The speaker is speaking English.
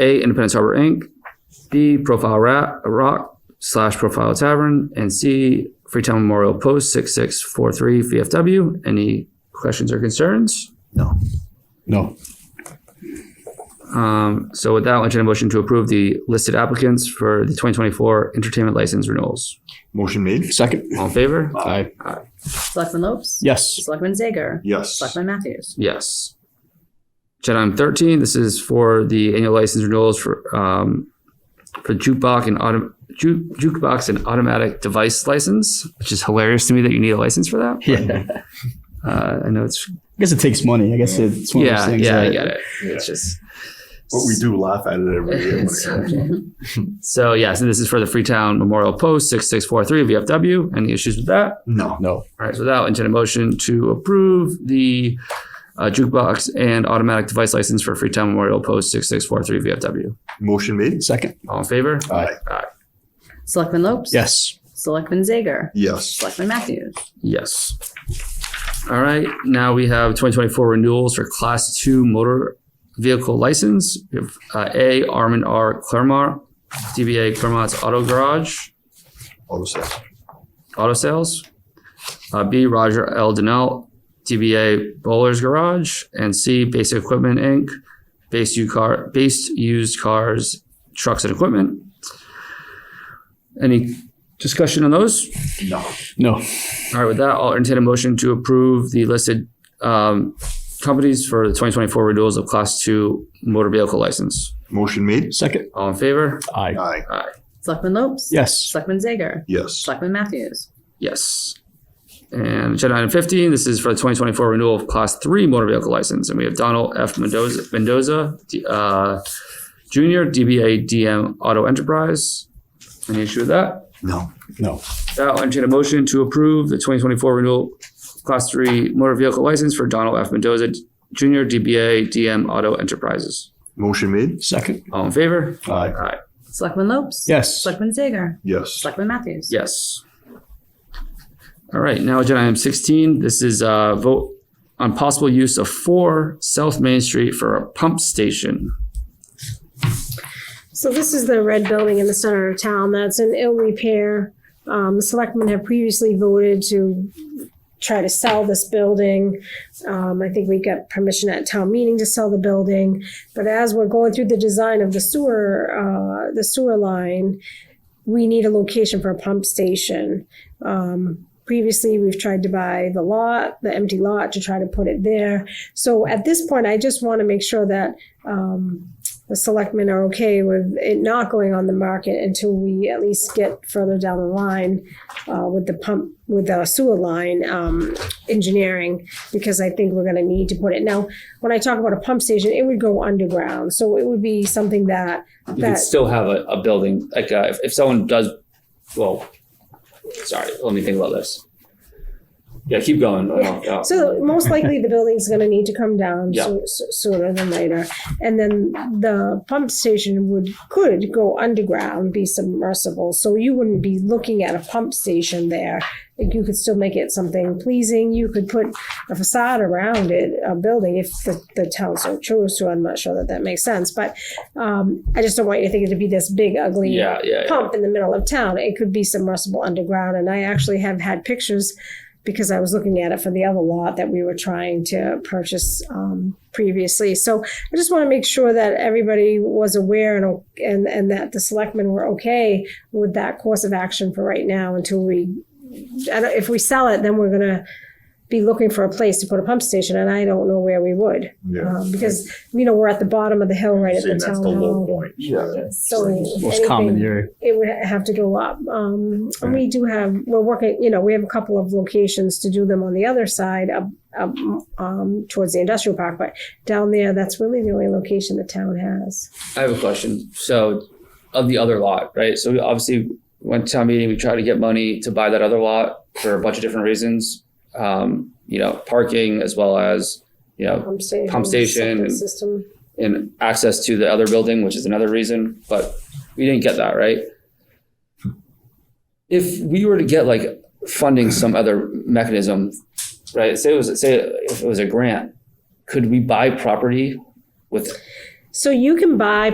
A. Independence Harbor Inc. B. Profile Ra- Rock slash Profile Tavern. And C. Freetown Memorial Post 6643 VFW. Any questions or concerns? No. No. Um, so with that, I'll entertain a motion to approve the listed applicants for the 2024 entertainment license renewals. Motion made? Second? All in favor? Aye. Selectman Lopes? Yes. Selectman Zager? Yes. Selectman Matthews? Yes. Agenda item thirteen, this is for the annual license renewals for, um, for jukebox and auto, ju- jukebox and automatic device license, which is hilarious to me that you need a license for that. Yeah. Uh, I know it's, I guess it takes money. I guess it's one of those yeah, things. yeah, I that- get it. It's just. But we do laugh at it every year. when it It's- happens. So yes, and this is for the Freetown Memorial Post six six four three VFW. Any issues with that? No. No. All right, so that'll entertain a motion to approve the uh, jukebox and automatic device license for Freetown Memorial Post 6643 VFW. Motion made? Second? All in favor? Aye. Selectman Lopes? Yes. Selectman Zager? Yes. Selectman Matthews? Yes. All right, now we have 2024 renewals for Class 2 motor vehicle license. We have uh, A, Armin R. Claremont, DBA Claremont's Auto Garage. Auto sales. Auto Sales. Uh, B. Roger L. Donnell, DBA Bowler's Garage. And C. Basic Equipment Inc., based, u- car, based used cars, trucks, and equipment. Any discussion on those? No. No. All right, with that, I'll entertain a motion to approve the listed um, companies for the 2024 renewals of Class 2 motor vehicle license. Motion made? Second? All in favor? Aye. Aye. Selectman Lopes? Yes. Selectman Zager? Yes. Selectman Matthews? Yes. And agenda item fifteen, this is for the twenty twenty-four renewal of class three motor vehicle license, and we have Donald F. Mendoza, Mendoza, D- uh, Junior, DBA DM Auto Enterprise. Any issue with that? No. No. That, I'll entertain a motion to approve the twenty twenty-four renewal of class three motor vehicle license for Donald F. Mendoza, Junior, DBA DM Auto Enterprises. Motion made? Second? All in favor? Aye. Aye. Selectman Lopes? Yes. Selectman Zager? Yes. Selectman Matthews? Yes. All right, now agenda item sixteen, this is a vote on possible use of four South Main Street for a pump station. So this is the red building in the center of town that's in ill repair. Um, the selectmen have previously voted to try to sell this building. Um, I think we got permission at town meeting to sell the building. But as we're going through the design of the sewer, uh, the sewer line, we need a location for a pump station. Um, previously, we've tried to buy the lot, the empty lot to try to put it there. So at this point, I just want to make sure that, um, the selectmen are okay with it not going on the market until we at least get further down the line uh, with the pump, with the sewer line um, engineering, because I think we're gonna need to put it. Now, when I talk about a pump station, it would go underground, so it would be something that, You could that, still have a, a building, like, uh, if, if someone does, well, sorry, let me think about this. Yeah, keep going. I don't- uh, so most likely the building's gonna need to come down Yeah. so- so- sooner than later. And then the pump station would, could go underground, be submersible, so you wouldn't be looking at a pump station there. Like, you could still make it something pleasing, you could put a facade around it, a building, if the, the town so chose to, I'm not sure that that makes sense, but, um, I just don't want you to think it'd be this big ugly Yeah, yeah, yeah. pump in the middle of town. It could be submersible underground. And I actually have had pictures because I was looking at it for the other lot that we were trying to purchase um, previously. So I just want to make sure that everybody was aware and, and, and that the selectmen were okay with that course of action for right now until we, I don't, if we sell it, then we're going to be looking for a place to put a pump station. And I don't know where we would Yeah. um, because, you know, we're at the bottom of the hill right at the Saying that's town the low hall. point. Yeah. So Most common anything- here. it would have to go up. Um, and we do have, we're working, you know, we have a couple of locations to do them on the other side up, up, um, towards the industrial park, but down there, that's really the only location the town has. I have a question. So of the other lot, right? So we obviously went to town meeting, we tried to get money to buy that other lot for a bunch of different reasons. Um, you know, parking as well as, you know, Pump station. Pump station septic and- System. and access to the other building, which is another reason, but we didn't get that, right? If we were to get like funding some other mechanism, right, say it was, say if it was a grant, could we buy property with So you can buy